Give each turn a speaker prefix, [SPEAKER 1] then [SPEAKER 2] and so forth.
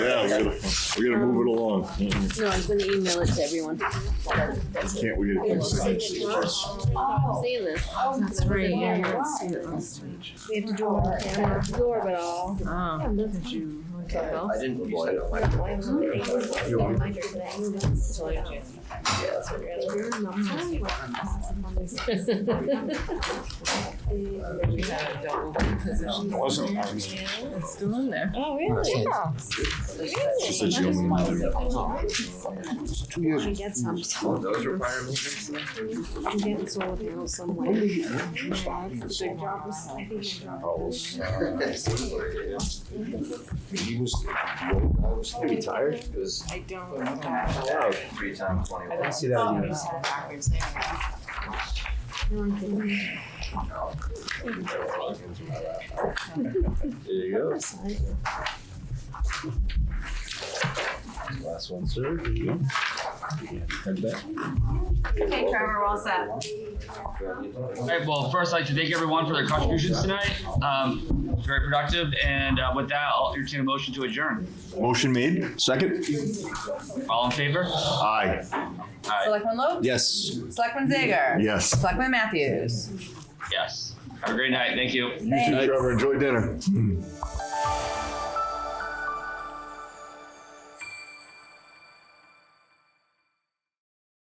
[SPEAKER 1] We gotta move it along. Mhm.
[SPEAKER 2] No, I'm gonna email it to everyone.
[SPEAKER 1] Can't we get a signature first?
[SPEAKER 2] See this?
[SPEAKER 3] That's right, yeah, you had
[SPEAKER 4] Oh,
[SPEAKER 3] seen it last week.
[SPEAKER 2] Absorb it all.
[SPEAKER 3] Oh, did you want to go?
[SPEAKER 5] I didn't reply to my.
[SPEAKER 3] We had a double position.
[SPEAKER 1] It wasn't ours. She
[SPEAKER 3] It's still in there.
[SPEAKER 2] Oh, really?
[SPEAKER 1] said she only wanted it. It's Two years.
[SPEAKER 2] I get some,
[SPEAKER 5] Oh, those require movements?
[SPEAKER 2] I'm getting sold now somewhere.
[SPEAKER 1] Hours.
[SPEAKER 5] Are
[SPEAKER 1] He was. I
[SPEAKER 5] you tired? It was.
[SPEAKER 3] I don't.
[SPEAKER 5] Wow, three times twenty-one.
[SPEAKER 3] I don't see
[SPEAKER 5] that.
[SPEAKER 2] Oh,
[SPEAKER 3] Backwards there.
[SPEAKER 5] There you go. Last one, sir. There you go. Head back.
[SPEAKER 4] Okay, Trevor, we're all set.
[SPEAKER 6] All right, well, first, I'd like to thank everyone for their contributions tonight. Um, very productive, and uh, with that, I'll entertain a motion to adjourn.
[SPEAKER 1] Motion made, second?
[SPEAKER 6] All in favor?
[SPEAKER 1] Aye.
[SPEAKER 4] Selectman Lopes?
[SPEAKER 1] Yes.
[SPEAKER 4] Selectman Zager?
[SPEAKER 1] Yes.
[SPEAKER 4] Selectman Matthews?
[SPEAKER 6] Yes. Have a great night. Thank you.
[SPEAKER 1] You too, Trevor, enjoy dinner.